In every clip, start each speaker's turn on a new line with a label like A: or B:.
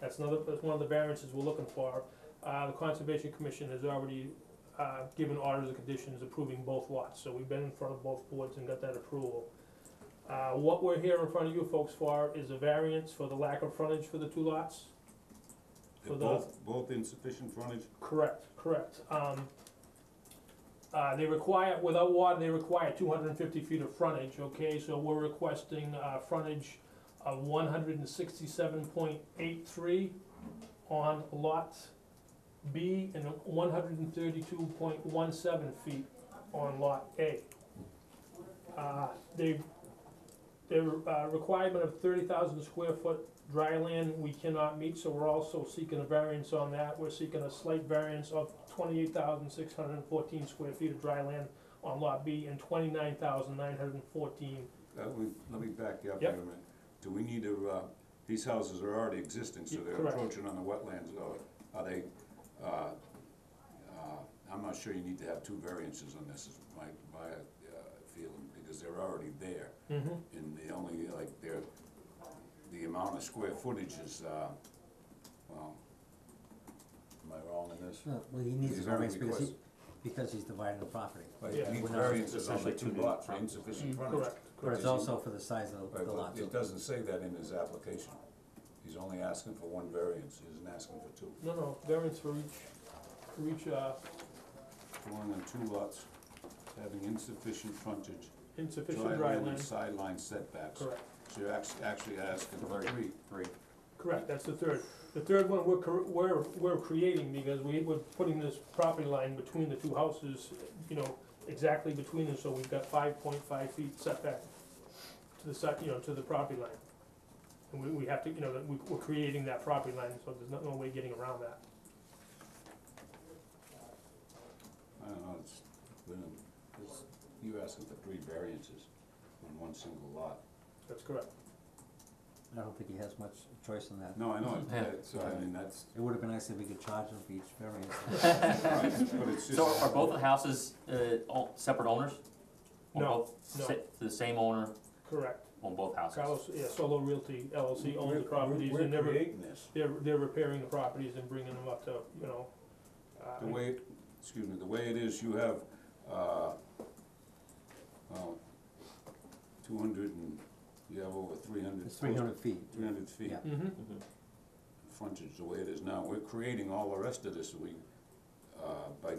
A: That's another, that's one of the variances we're looking for. Uh, the Conservation Commission has already, uh, given orders and conditions approving both lots, so we've been in front of both boards and got that approval. Uh, what we're here in front of you folks for is a variance for the lack of frontage for the two lots.
B: They're
A: For the-
B: both, both insufficient frontage,
A: Correct, correct. Um, uh, they require, without water, they require two hundred and fifty feet of frontage, okay, so we're requesting, uh, frontage of one hundred and sixty-seven point eight three on lot B and one hundred and thirty-two point one seven feet on lot A. Uh, they, their, uh, requirement of thirty thousand square foot dry land we cannot meet, so we're also seeking a variance on that. We're seeking a slight variance of twenty-eight thousand six hundred and fourteen square feet of dry land on lot B and twenty-nine thousand nine hundred and fourteen.
B: that would- Uh, let me back you up here
A: Mm-hmm. Yep.
B: a minute. Do we need to, uh, these houses are already existing, so
A: Y-
B: they're
A: correct.
B: approaching on the wetlands, or are they, uh, uh, I'm not sure you need to have two variances on this, is my, my, uh, feeling, because they're already there.
A: Mm-hmm.
B: And the only, like, their, the amount of square footage is, uh, well, am I wrong in this?
C: Uh, Well, he needs a
B: He's already
C: variance because he,
B: requested.
C: because he's dividing the property.
B: Like,
A: Yeah.
B: you need
C: We're not-
B: variances on the
D: Essentially
B: two
D: two
B: lots, for
D: different-
B: insufficient frontage.
A: Mm-hmm. Correct.
C: But it's
B: Does he-
C: also for the size of
B: Right,
C: the
B: but
C: lot.
B: it doesn't say that in his application. He's only asking for one variance, he isn't asking for two.
A: No, no, variance for each, for each, uh,
B: One and two lots having insufficient frontage,
A: insufficient
B: dry
A: dry
B: land and
A: land.
B: sideline setbacks.
A: Correct,
B: So you're act- actually asking for
D: Right.
B: three.
D: Three.
A: correct, that's the third. The third one we're, cor- we're, we're creating because we, we're putting this property line between the two houses, you know, exactly between them, so we've got five point five feet setback to the side, you know, to the property line. And we, we have to, you know, that we, we're creating that property line, so there's no, no way getting around that.
B: I don't know, it's, been- it's- you're asking for three variances on one single lot.
A: That's correct.
C: I don't think he has much choice in that.
B: No, I know,
D: Yeah.
B: it's, so I mean, that's,
C: It would've been nice if we could charge him for each variance.
B: but it's just.
D: So are both the houses, uh, all separate owners? Or
A: No,
D: both
A: no.
D: sa- The same owner
A: Correct.
D: on both houses?
A: Carlos, yeah, Solo Realty LLC owns
B: We're-
A: the properties
B: We're
A: and they're,
B: creating this.
A: they're, they're repairing the properties and bringing them up to, you know, uh,
B: The way, excuse me, the way it is, you have, uh, well, two hundred and, you have over three hundred.
C: It's three hundred feet.
B: feet
C: Yeah.
A: hmm
D: Mhm.
B: frontage, the way it is now, we're creating all the rest of this, we, uh, by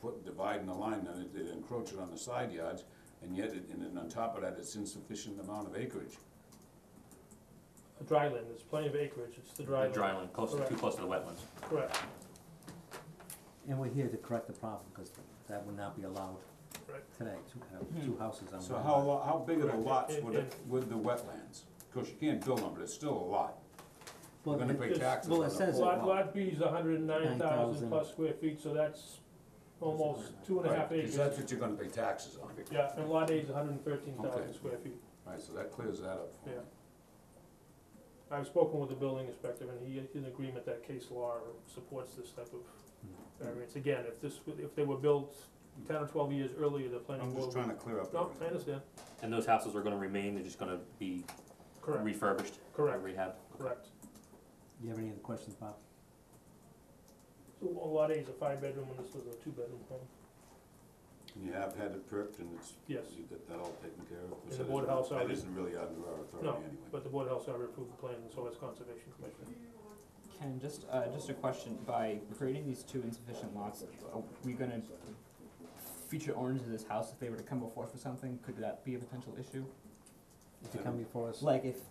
B: put, dividing the line, then it- it encroaches on the side yards, and yet, it- and then on top of that, it's insufficient amount of acreage.
A: dry land, there's plenty of acreage, it's the dry
D: The
A: land.
D: dry land, close, to- too
A: Correct.
D: close to the wetlands.
A: Correct,
C: And we're here to correct the problem, cause that would not be allowed
A: Right.
C: today, two, uh, two houses on
B: Hmm. So
C: one
B: how,
C: lot.
B: lo- how big are the
A: Correct.
B: lots
A: And-
B: with, the- with the wetlands? Of course, you can't build them, but it's still a lot,
C: Well,
B: we're gonna
C: it-
B: pay
A: it's-
B: taxes on
C: well,
B: the
C: it says it-
B: whole
A: lot,
B: lot.
A: lot B is hundred and nine thousand
C: 9,000.
A: plus square feet, so that's almost
C: Right,
A: two and a half
B: Right,
A: acres.
B: Because that's what you're gonna pay taxes on.
A: Yeah, and lot A is hundred and thirteen
B: Okay.
A: thousand square feet.
B: Right, so that clears that up for me.
A: Yeah. I've spoken with the building inspector and he is in agreement that case law supports this type of
B: Hmm.
A: variance. Again, if this, w- if they were built ten or twelve years earlier, the planning
B: I'm just
A: board.
B: trying to clear up
A: No, I
B: everything.
A: understand,
D: And those houses are gonna remain, they're just gonna be
A: correct,
D: refurbished,
A: correct,
D: rehabbed?
A: correct.
C: Do you have any other questions, Bob?
A: So a lot A is a five bedroom and this was a two bedroom home.
B: And you have had it perked and it's,
A: Yes,
B: you got that all taken care of?
A: the board house
B: That
A: already-
B: isn't really under our
A: No,
B: authority anyway.
A: but the board also already approved the plan and so has conservation commission.
E: Ken, just, uh, just a question, by creating these two insufficient lots, are we gonna feature orange in this house if they were to come before us for something, could that be a potential issue?
C: If you come before us,
E: Like if,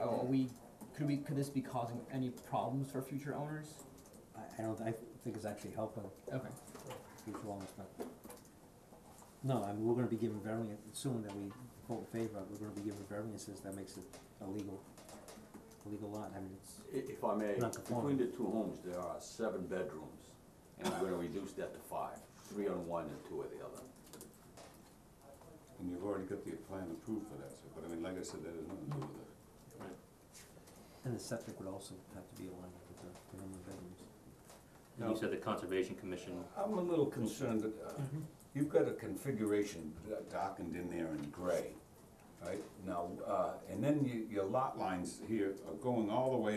E: oh, are we, could we, could this be causing any problems for future owners?
C: I, I don't, I think it's actually helping
E: Okay,
C: future owners, but. No, I mean, we're gonna be given variance, assuming that we vote in favor, we're gonna be given variances, that makes it illegal, illegal lot, I mean, it's.
F: I- If I may,
C: Not conforming.
F: between the two homes, there are seven bedrooms, and we're gonna reduce that to five, three on one and two on the other.
B: And you've already got the plan approved for that, so, but I mean, like I said, that has nothing to do with it.
C: And the septic would also have to be aligned with the minimum bedrooms.
D: And you said the conservation commission,
B: I'm a little concerned that, uh,
C: Mm-hmm.
B: you've got a configuration d- darkened in there in gray, right? Now, uh, and then you, your lot lines here are going all the way